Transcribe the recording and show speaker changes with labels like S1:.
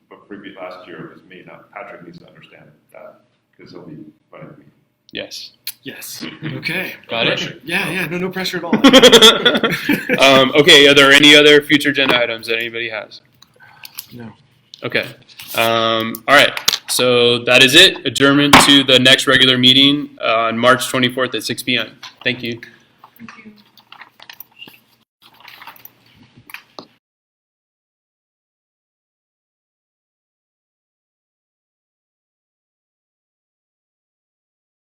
S1: previous, last year it was me, not Patrick needs to understand that, because he'll be running me.
S2: Yes.
S3: Yes. Okay.
S2: Got it?
S3: Yeah, yeah. No, no pressure at all.
S2: um, okay, are there any other future agenda items that anybody has?
S3: No.
S2: Okay. Um, all right. So that is it. uh, Adjournment to the next regular meeting on March 24th at 6 p.m. Thank you.
S4: Thank you.